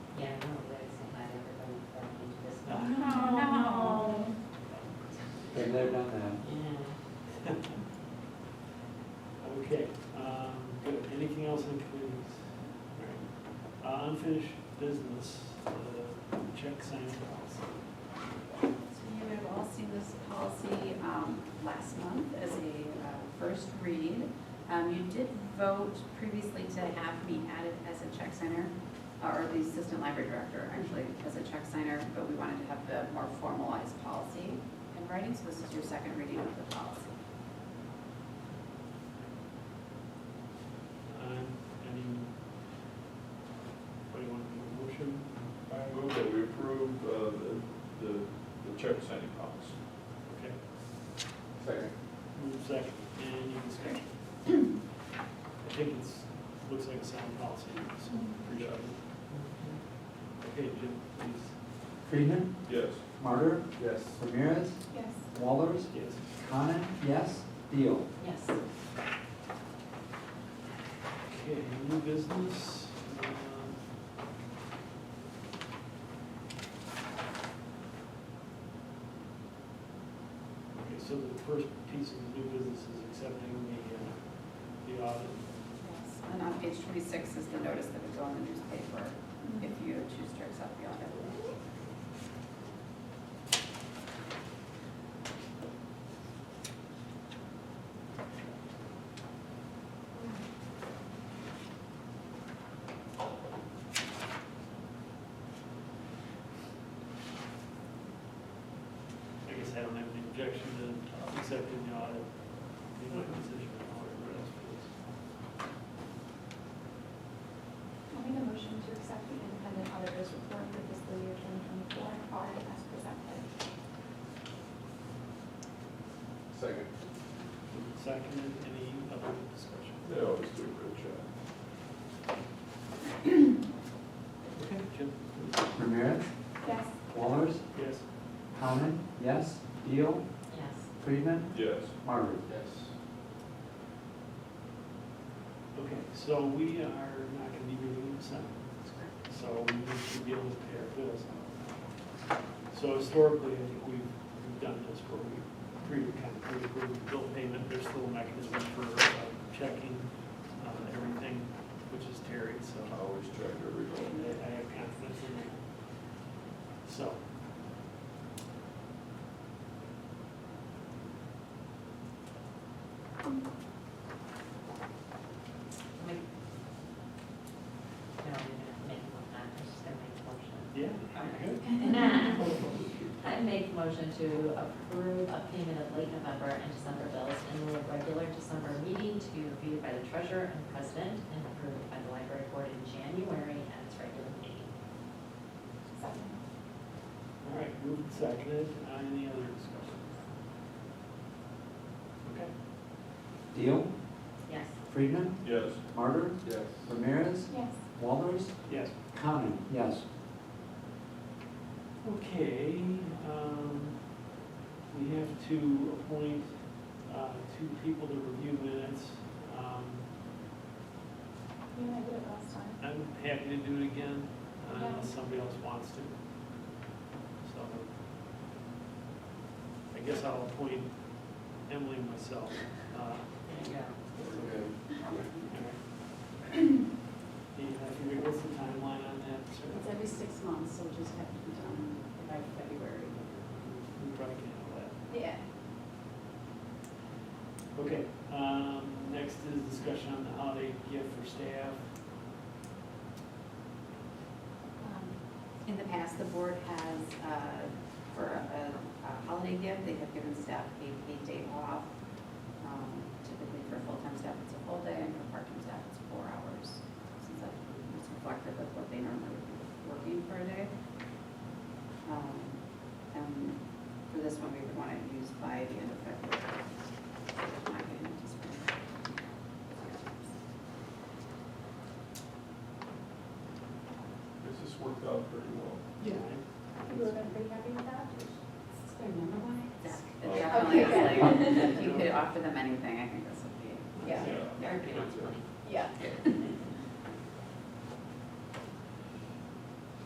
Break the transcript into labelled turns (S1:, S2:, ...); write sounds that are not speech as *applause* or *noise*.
S1: Uh-huh.
S2: Been there, done
S3: Yeah.
S2: that.
S3: Okay, um, good, anything else on committees? All right. Uh, Unfinished business, uh, check sign policy.
S4: So you have all seen this policy um, last month as a uh, first read. Um, You did vote previously to have me added as a check signer, or the assistant library director, actually, as a check signer, but we wanted to have the more formalized policy in writing, so this is your second reading of the policy.
S3: Um, any, what do you want, a motion?
S5: I move that we approve uh, the, the the check signing policy.
S3: Okay,
S2: Second.
S3: move second, any discussion? I think it's, looks like a sound policy, so appreciate it. Okay, Jim, please.
S2: Friedman,
S5: Yes.
S2: Martyr. Yes. Ramirez,
S4: Yes.
S2: Wallers,
S3: Yes.
S2: Conan, yes, Deal.
S4: Yes.
S3: Okay, new business. um, Okay, so the first piece of new business is accepting the, uh, the audit.
S4: And on page 26 is the notice that would go in the newspaper if you choose to accept the audit.
S3: I guess I don't have an objection to accepting the audit. Be my position or whatever else it
S6: I'll make a motion to accept the independent auditor's report for fiscal year 2024 audit as presented.
S2: Second.
S3: is. Second, any other discussion?
S5: They always do a great job.
S3: Okay, Jim?
S2: Ramirez,
S6: Yes.
S2: Wallers,
S3: Yes.
S2: Conan, yes, Deal,
S4: Yes.
S2: Friedman,
S5: Yes.
S2: Martyr.
S5: Yes.
S3: Okay, so we are not gonna be meeting in December. So we should be able to pay our bills. So historically, I think we've, we've done this where we pre, kind of pre-approve bill payment, there's still a mechanism for uh, checking uh, everything, which is Terry, so
S5: I always check every
S3: I
S5: one.
S3: I have confidence in that. So.
S1: Make- No, you didn't make one, I'm just gonna make a motion.
S3: Yeah.
S1: *laughs* I make a motion to approve a payment of late November and December bills in the regular December meeting to be reviewed by the treasurer and president and approved by the library board in January at its regular meeting.
S6: Second.
S3: All right, moved and seconded, Uh, any other discussion? Okay.
S2: Deal,
S1: Yes.
S2: Friedman,
S5: Yes.
S2: Martyr,
S5: Yes.
S2: Ramirez,
S6: Yes.
S2: Wallers,
S3: Yes.
S2: Conan, yes.
S3: Okay, um, we have to appoint, uh, two people to review minutes. Um,
S6: You and I did it last time.
S3: I'm happy to do it again, uh,
S6: Yeah.
S3: unless somebody else wants to. So, I guess I'll appoint Emily and myself, uh,
S1: There you go.
S3: *clears throat* Yeah, I can read- what's the timeline on that, sir?
S4: It's every six months, so just have to be done by February.
S3: We probably can handle that.
S4: Yeah.
S3: Okay, um, next is discussion on the holiday gift for staff.
S4: Um, In the past, the board has, uh, for a a holiday gift, they have given staff a paid day off. Um, Typically for full-time staff, it's a full day, and for part-time staff, it's four hours. Since that is reflective of what they normally would be working for a day. Um, And for this one, we would want it used by the end of February. Not getting into spring.
S5: This has worked out pretty well.
S3: Yeah.
S6: You would have been pretty happy with that?
S4: Is there another one? Zach,
S5: Oh.
S4: Definitely,
S6: Okay,
S4: it's like, if you could offer them anything, I think this would be, yeah.
S5: Yeah.
S4: That would be
S1: That's fine.
S4: Yeah.